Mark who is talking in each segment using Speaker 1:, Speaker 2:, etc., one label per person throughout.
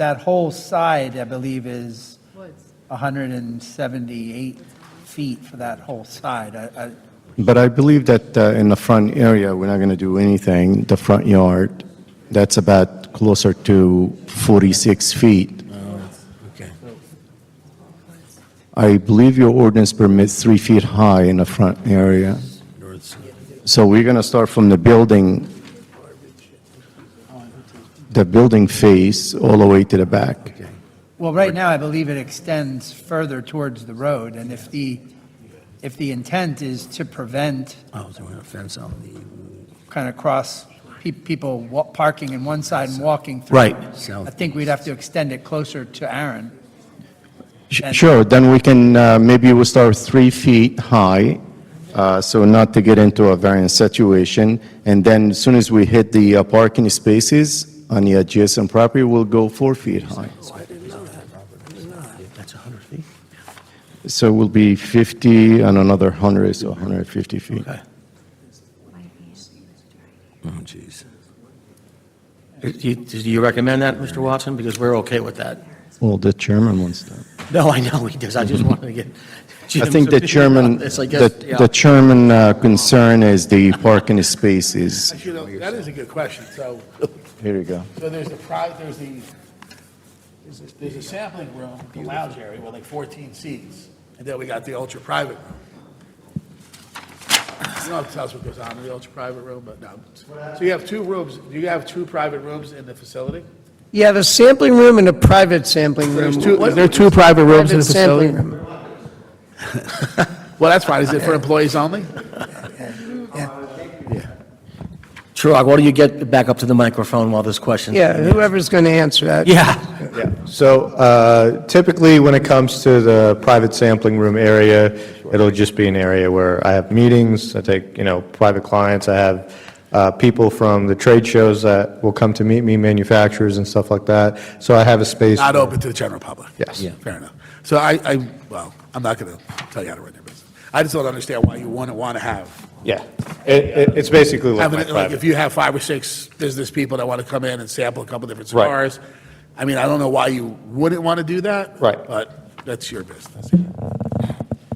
Speaker 1: that whole side, I believe, is
Speaker 2: Woods.
Speaker 1: 178 feet for that whole side. I- I-
Speaker 3: But I believe that uh, in the front area, we're not going to do anything, the front yard, that's about closer to 46 feet.
Speaker 4: Okay.
Speaker 3: I believe your ordinance permits three feet high in the front area.
Speaker 4: North side.
Speaker 3: So we're going to start from the building, the building face all the way to the back.
Speaker 4: Okay.
Speaker 1: Well, right now, I believe it extends further towards the road, and if the, if the intent is to prevent
Speaker 4: Oh, so we're gonna fence out the,
Speaker 1: kind of cross, pe- people wa- parking in one side and walking through.
Speaker 3: Right.
Speaker 1: I think we'd have to extend it closer to Aaron.
Speaker 3: Sh- Sure, then we can, uh, maybe we'll start three feet high, uh, so not to get into a variance situation. And then as soon as we hit the uh, parking spaces on the adjacent property, we'll go four feet high.
Speaker 4: that's 100 feet?
Speaker 3: So we'll be 50 and another 100, so 150 feet.
Speaker 4: Okay. Oh, jeez. Do you- do you recommend that, Mr. Watson? Because we're okay with that.
Speaker 3: Well, the chairman wants that.
Speaker 4: No, I know he does. I just wanted to get
Speaker 3: I think the
Speaker 4: Jim's
Speaker 3: chairman,
Speaker 4: opinion on this, uh, I guess,
Speaker 3: the
Speaker 4: yeah.
Speaker 3: the chairman uh, concern is the parking spaces.
Speaker 5: You know, that is a good question. So,
Speaker 3: Here you go.
Speaker 5: so there's the pri, there's the, there's a- there's a sampling room, the lounge area with like 14 seats, and then we got the ultra-private room. You don't have to tell us what goes on in the ultra-private room, but no. So you have two rooms, do you have two private rooms in the facility?
Speaker 6: Yeah, the sampling room and a private sampling room.
Speaker 5: There's two, is there two private rooms in the
Speaker 6: Private sampling
Speaker 5: facility?
Speaker 6: room.
Speaker 5: Well, that's fine. Is it for employees only?
Speaker 4: Chirag, why don't you get back up to the microphone while this question?
Speaker 6: Yeah, whoever's going to answer that.
Speaker 4: Yeah.
Speaker 7: So uh, typically, when it comes to the private sampling room area, it'll just be an area where I have meetings, I take, you know, private clients, I have uh, people from the trade shows that will come to meet me, manufacturers and stuff like that. So I have a space.
Speaker 5: Not open to the general public?
Speaker 7: Yes. Yeah.
Speaker 5: Fair enough. So I, I, well, I'm not going to tell you how to run your business. I just don't understand why you wouldn't want to have
Speaker 7: Yeah. It- it- It's basically like
Speaker 5: Having,
Speaker 7: my
Speaker 5: it- like, if
Speaker 7: private.
Speaker 5: you have five or six business people that want to come in and sample a couple different
Speaker 7: Right.
Speaker 5: cigars, I mean, I don't know why you wouldn't want to do that.
Speaker 7: Right.
Speaker 5: But that's your business.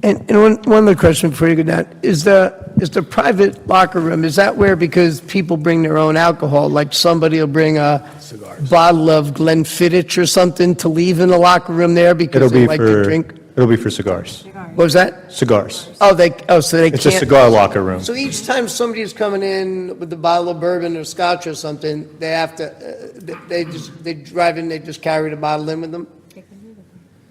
Speaker 6: And, and one, one other question before you go down, is the, is the private locker room, is that where, because people bring their own alcohol, like somebody will bring a
Speaker 5: Cigars.
Speaker 6: bottle of Glenfiddich or something to leave in the locker room there
Speaker 7: It'll
Speaker 6: because they
Speaker 7: be
Speaker 6: like to
Speaker 7: for,
Speaker 6: drink?
Speaker 7: it'll be for cigars.
Speaker 6: What was that?
Speaker 7: Cigars.
Speaker 6: Oh, they, oh, so they can't.
Speaker 7: It's a cigar locker room.
Speaker 6: So each time somebody's coming in with a bottle of bourbon or scotch or something, they have to, uh, they- they just, they drive in, they just carry the bottle in with them?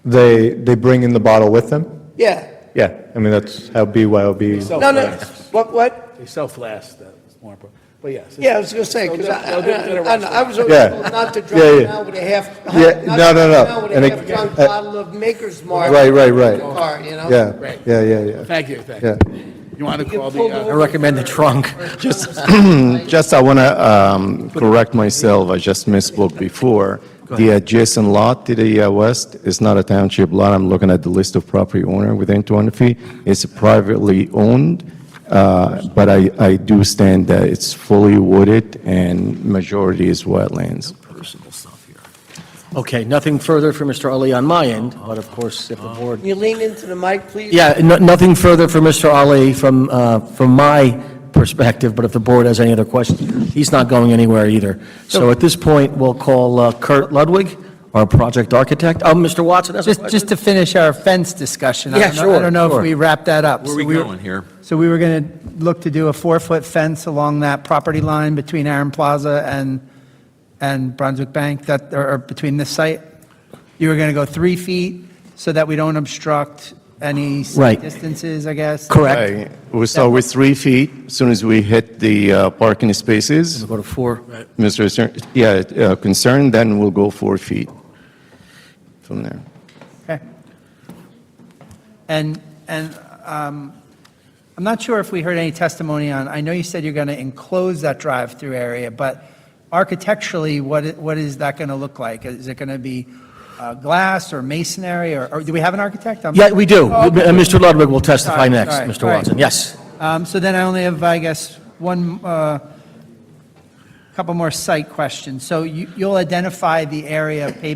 Speaker 7: They, they bring in the bottle with them?
Speaker 6: Yeah.
Speaker 7: Yeah. I mean, that's how BYOB.
Speaker 6: No, no, what, what?
Speaker 5: They sell flasks, that's more important. But yes.
Speaker 6: Yeah, I was gonna say, because I, I, I- I- I was always
Speaker 7: Yeah.
Speaker 6: told not to
Speaker 7: Yeah,
Speaker 6: drive
Speaker 7: yeah.
Speaker 6: now with a half.
Speaker 7: Yeah,
Speaker 6: not
Speaker 7: no, no, no.
Speaker 6: to drive down With
Speaker 7: And
Speaker 6: a
Speaker 7: it-
Speaker 6: half drunk
Speaker 7: uh,
Speaker 6: bottle of Maker's Mark.
Speaker 7: Right, right, right.
Speaker 6: in the Car, you know?
Speaker 7: Yeah, yeah, yeah, yeah.
Speaker 5: Thank you, thank
Speaker 7: Yeah.
Speaker 5: you. You want to
Speaker 6: can
Speaker 5: call the,
Speaker 6: pull
Speaker 5: uh,
Speaker 6: over
Speaker 4: I recommend the trunk. Just,
Speaker 3: Mm, Just, I want to correct myself, I just misspoke before. The adjacent lot to the uh, west is not a township lot, I'm looking at the list of property owner within 200 feet. It's privately owned, uh, but I I do stand that it's fully wooded and majority is wetlands.
Speaker 4: personal stuff here. Okay, nothing further for Mr. Ali on my end, but of course, if the board.
Speaker 6: Can you lean into the mic, please?
Speaker 4: Yeah, no- nothing further for Mr. Ali from, uh, from my perspective, but if the board has any other questions, he's not going anywhere either. So at this point, we'll call uh, Kurt Ludwig, our project architect. Oh, Mr. Watson has a
Speaker 1: Just,
Speaker 4: question?
Speaker 1: just to finish our fence discussion. I
Speaker 4: Yeah,
Speaker 1: don't know- I
Speaker 4: sure,
Speaker 1: don't know
Speaker 4: sure.
Speaker 1: if we wrapped that up.
Speaker 8: Where
Speaker 1: So
Speaker 8: are we
Speaker 1: were-
Speaker 8: going here?
Speaker 1: So we were going to look to do a four-foot fence along that property line between Aaron Plaza and, and Brunswick Bank, that, or or between this site? You were going to go three feet so that we don't obstruct any
Speaker 4: Right.
Speaker 1: site distances, I guess?
Speaker 4: Correct.
Speaker 3: We start with three feet, as soon as we hit the uh, parking spaces,
Speaker 4: Go to four.
Speaker 3: Mr. Cer- yeah, uh, concern, then we'll go four feet from there.
Speaker 1: Okay. And, and um, I'm not sure if we heard any testimony on, I know you said you're going to enclose that drive-through area, but architecturally, what, i- what is that going to look like? Is it going to be uh, glass or masonry, or, or do we have an architect? I'm-
Speaker 4: Yeah, we do.
Speaker 1: Oh,
Speaker 4: Uh,
Speaker 1: okay.
Speaker 4: Mr. Ludwig will testify
Speaker 1: All right,
Speaker 4: next,
Speaker 1: all right,
Speaker 4: Mr.
Speaker 1: all right.
Speaker 4: Watson. Yes.
Speaker 1: Um, So then I only have, I guess, one, uh couple more site questions. So you- you'll identify the area of pavement